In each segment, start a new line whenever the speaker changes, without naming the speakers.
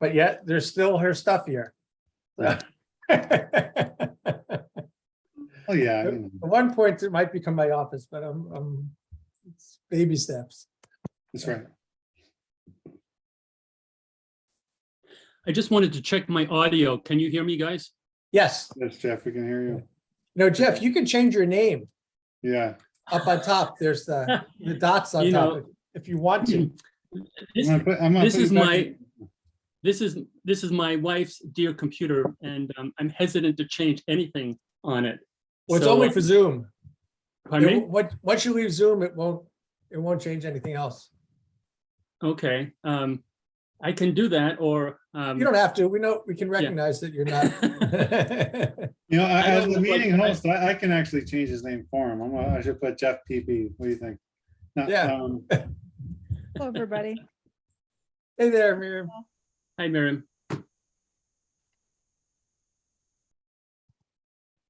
but yet there's still her stuff here. So- At
Oh, yeah. I don't know.
one point, it might become my office, but I'm, I'm it's baby steps.
That's right.
I just wanted to check my audio. Can you hear me, guys?
Yes.
Yes, Jeff, we can hear you.
No, Jeff, you can change your name
Yeah.
up on top. There's the, the dots on
You
top
know-
if- if you want to.
This,
I'm gonna put- I'm gonna
this
put it
is
back
my-
in-
this is, this is my wife's dear computer and um, I'm hesitant to change anything on it.
Well, it's
So,
only for Zoom.
Pardon
It
me?
won't- Once, once you leave Zoom, it won't, it won't change anything else.
Okay, um, I can do that or, um,
You don't have to. We know, we can recognize that you're not.
You know, I-
I
as
don't
the
look like-
meeting host, I, I can actually change his name for him. I'm, gonna- I should put Jeff PP. What do you think? Not,
Yeah.
um,
Hello, everybody.
Hey there, Miriam.
hi, Miriam.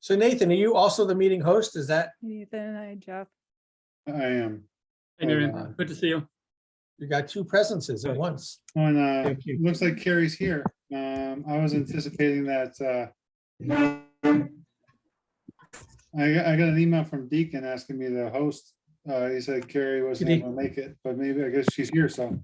So Nathan, are you also the meeting host? Is that
Ethan and I, Jeff.
I am.
Hi,
uh,
Miriam. Good to see you.
You got two presences at once.
On, uh,
Thank you.
looks like Carrie's here. Um, I was anticipating that, uh, I, got- I got an email from Deacon asking me to host. Uh, he said Carrie wasn't
Good
able to make it, but maybe I guess she's here, so.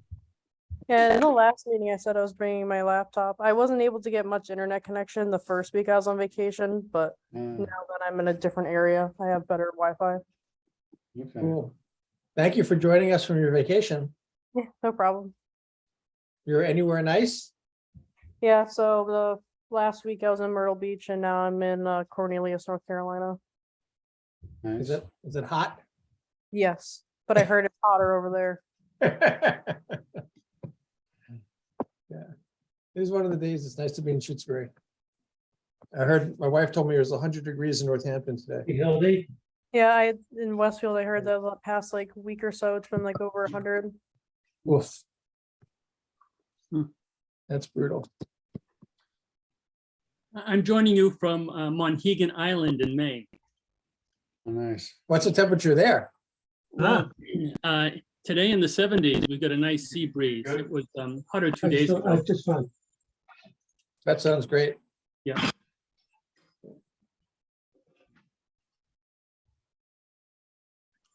Yeah, in the last meeting, I said I was bringing my laptop. I wasn't able to get much internet connection the first week I was on vacation, but now
uh,
that I'm in a different area, I have better Wi-Fi.
okay.
Cool. Thank you for joining us from your vacation.
Yeah, no problem.
You're anywhere nice?
Yeah, so the last week I was in Myrtle Beach and now I'm in uh, Cornelius, North Carolina.
Is
Nice.
it, is it hot?
Yes, but I heard it's hotter over there.
Yeah. It is one of the days. It's nice to be in Shutesbury. I heard, my wife told me it was hundred degrees in Northampton today.
Yeah, I, in Westfield, I heard that the past like week or so, it's been like over a hundred.
Woof.
Hmm.
That's brutal.
I- I'm joining you from uh, Monhegan Island in Maine.
Oh, Nice.
What's the temperature there? Ah.
Uh, Today in the seventies, we got a nice sea breeze. It was um, hotter two days ago.
That sounds great.
Yeah.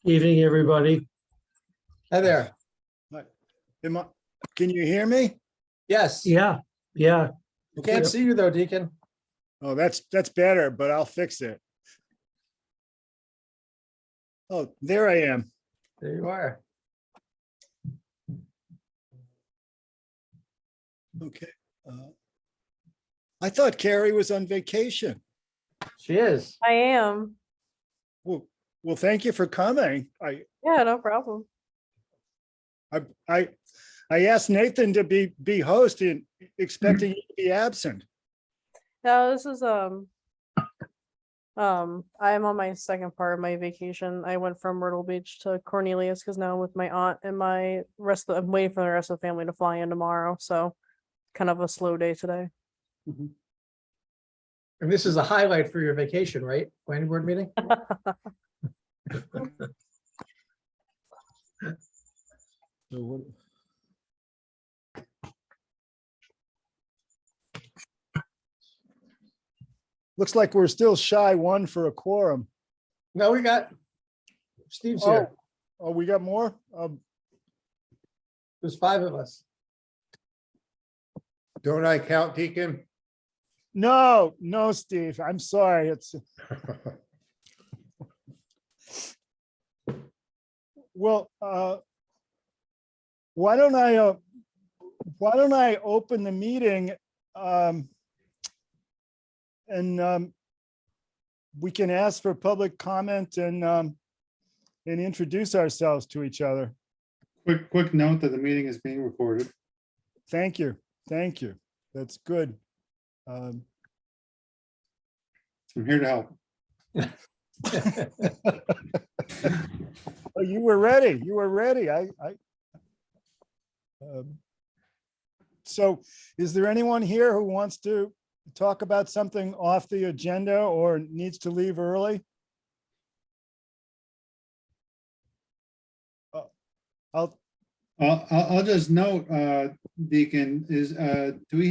Evening, everybody.
Hi there.
Am I, can you hear me?
Yes.
Yeah, yeah.
We Can't see you though, Deacon.
Oh, that's, that's better, but I'll fix it. Oh, there I am.
There you are.
Okay. uh, I thought Carrie was on vacation.
She is.
I am.
Well, well, thank you for coming. I,
Yeah, no problem.
I, I, I asked Nathan to be, be host and expecting you to be absent.
No, this is um um I'm on my second part of my vacation. I went from Myrtle Beach to Cornelius because now I'm with my aunt and my rest of I'm waiting for the rest of the family to fly in tomorrow. So kind of a slow day today.
And this is a highlight for your vacation, right? Planning board meeting?
So what? Looks like we're still shy one for a quorum.
No, we got Steve's here.
Oh, we got more? Um,
There's five of us.
Don't I count, Deacon?
no, no, Steve, I'm sorry. It's, well, uh, why don't I, uh, why don't I open the meeting? um, And um, we can ask for public comment and, um, and introduce ourselves to each other.
Quick, quick note that the meeting is being recorded.
Thank you. Thank you. That's good. Um,
I'm here to help.
oh, You were ready. You were ready. I, I. um, So is there anyone here who wants to talk about something off the agenda or needs to leave early? Uh, I'll,
I'll, I'll, I'll just note, uh, Deacon, is, uh, do we